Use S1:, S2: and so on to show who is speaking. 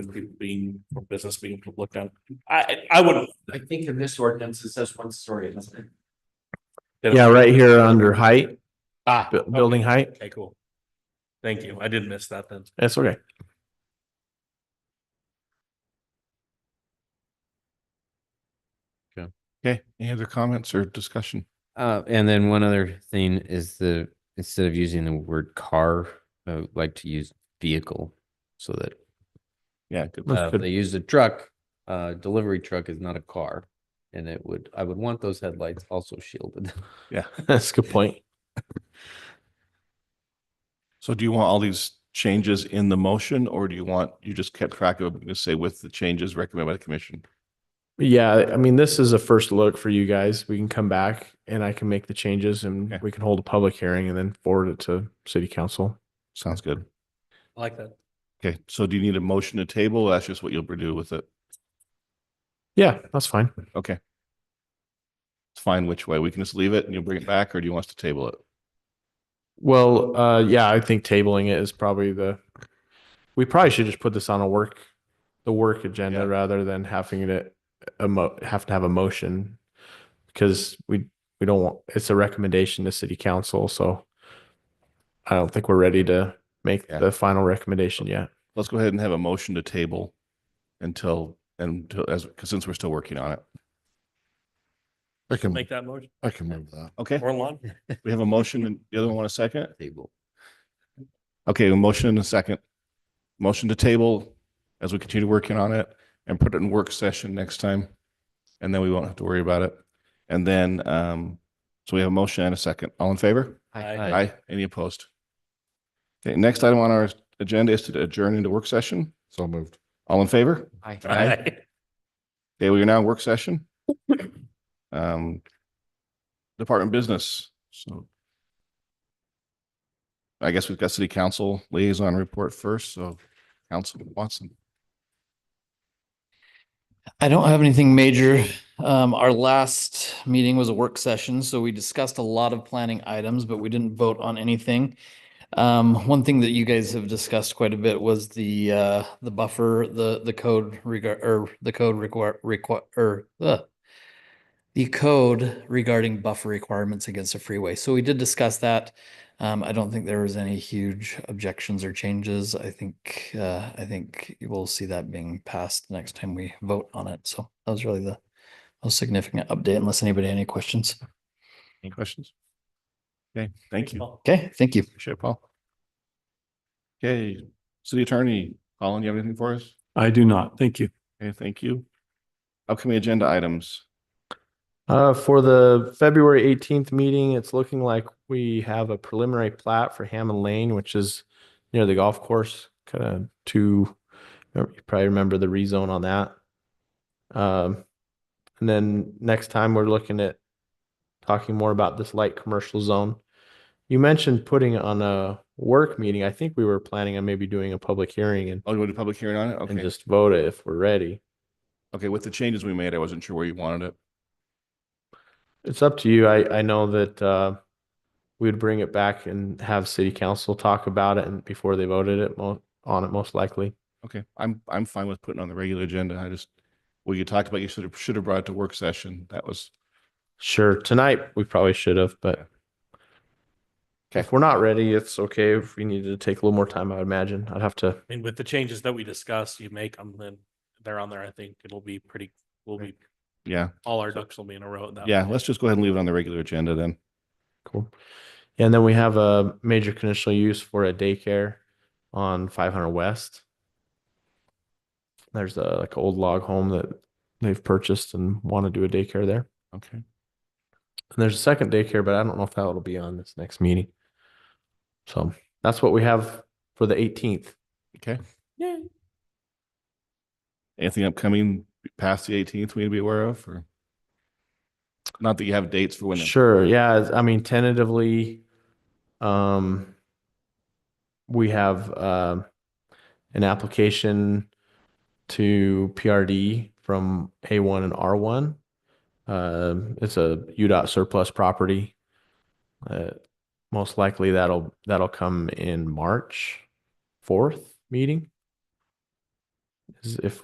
S1: and people being, or business being looked down. I, I would.
S2: I think in this ordinance, it says one story, doesn't it?
S3: Yeah, right here under height,
S1: Ah,
S3: bu- building height.
S1: Okay, cool. Thank you. I did miss that then.
S3: That's okay.
S4: Okay, any other comments or discussion?
S5: Uh, and then one other thing is the, instead of using the word car, I would like to use vehicle. So that
S4: Yeah, good.
S5: uh, if they use a truck, uh, delivery truck is not a car. And it would, I would want those headlights also shielded.
S4: Yeah.
S3: That's a good point.
S4: So do you want all these changes in the motion or do you want, you just kept track of, them, just say with the changes recommended by the commission?
S3: Yeah, I mean, this is a first look for you guys. We can come back and I can make the changes and
S4: Okay.
S3: we can hold a public hearing and then forward it to city council.
S4: Sounds good.
S1: I like that.
S4: Okay, so do you need a motion to table? That's just what you'll do with it.
S3: Yeah, that's fine.
S4: Okay. It's fine which way. We can just leave it and you'll bring it back or do you want us to table it?
S3: Well, uh, yeah, I think tabling it is probably the, we probably should just put this on a work, the work
S4: Yeah.
S3: agenda rather than having it, a mo, have to have a motion. Because we, we don't want, it's a recommendation to city council, so I don't think we're ready to make
S4: Yeah.
S3: the final recommendation yet.
S4: Let's go ahead and have a motion to table until, until, as, because since we're still working on it.
S6: I can,
S1: Make that motion.
S6: I can move that.
S4: Okay,
S1: We're in line.
S4: we have a motion and the other one want a second?
S5: Table.
S4: Okay, a motion and a second. Motion to table as we continue working on it and put it in work session next time. And then we won't have to worry about it. And then, um, so we have a motion and a second. All in favor?
S1: Aye.
S4: Aye. Any opposed? Okay, next item on our agenda is to adjourn into work session.
S6: So moved.
S4: All in favor?
S2: Aye.
S1: Aye.
S4: Okay, we are now in work session. Um, department business, so. I guess we've got city council liaison report first, so Councilman Watson.
S7: I don't have anything major. Um, our last meeting was a work session, so we discussed a lot of planning items, but we didn't vote on anything. Um, one thing that you guys have discussed quite a bit was the, uh, the buffer, the, the code regard, or the code require, require, or, ugh. The code regarding buffer requirements against a freeway. So we did discuss that. Um, I don't think there was any huge objections or changes. I think, uh, I think you will see that being passed next time we vote on it. So that was really the most significant update unless anybody had any questions.
S4: Any questions? Okay, thank you.
S7: Okay, thank you.
S4: Appreciate it, Paul. Okay, city attorney, Colin, you have anything for us?
S8: I do not. Thank you.
S4: Okay, thank you. Upcoming agenda items.
S3: Uh, for the February eighteenth meeting, it's looking like we have a preliminary plat for Hammond Lane, which is near the golf course, kind of to, you probably remember the rezone on that. Um, and then next time we're looking at talking more about this light commercial zone. You mentioned putting on a work meeting. I think we were planning on maybe doing a public hearing and,
S4: Oh, you want to do public hearing on it?
S3: and
S4: Okay,
S3: just vote it if we're ready.
S4: okay, with the changes we made, I wasn't sure where you wanted it.
S3: It's up to you. I, I know that, uh, we would bring it back and have city council talk about it and before they voted it mo- on it most likely.
S4: Okay, I'm, I'm fine with putting on the regular agenda. I just, well, you talked about you should have, should have brought it to work session. That was,
S3: Sure, tonight we probably should have, but if we're not ready, it's okay. If we needed to take a little more time, I would imagine. I'd have to,
S1: I mean, with the changes that we discussed, you make them, then they're on there. I think it'll be pretty, we'll be,
S4: yeah,
S1: all our ducks will be in a row. at that
S4: yeah,
S1: point.
S4: let's just go ahead and leave it on the regular agenda then.
S3: cool. And then we have a major conditional use for a daycare on five hundred west. There's a, like, old log home that they've purchased and want to do a daycare there.
S4: Okay.
S3: And there's a second daycare, but I don't know if that'll be on this next meeting. So that's what we have for the eighteenth.
S4: Okay. Yeah. Anything upcoming past the eighteenth we need to be aware of or? Not that you have dates for when. the-
S3: Sure, yeah, it's- I mean tentatively, um, we have, um, an application to PRD from A one and R one. Um, it's a UDOT surplus property. Uh, most likely that'll, that'll come in March fourth meeting. is if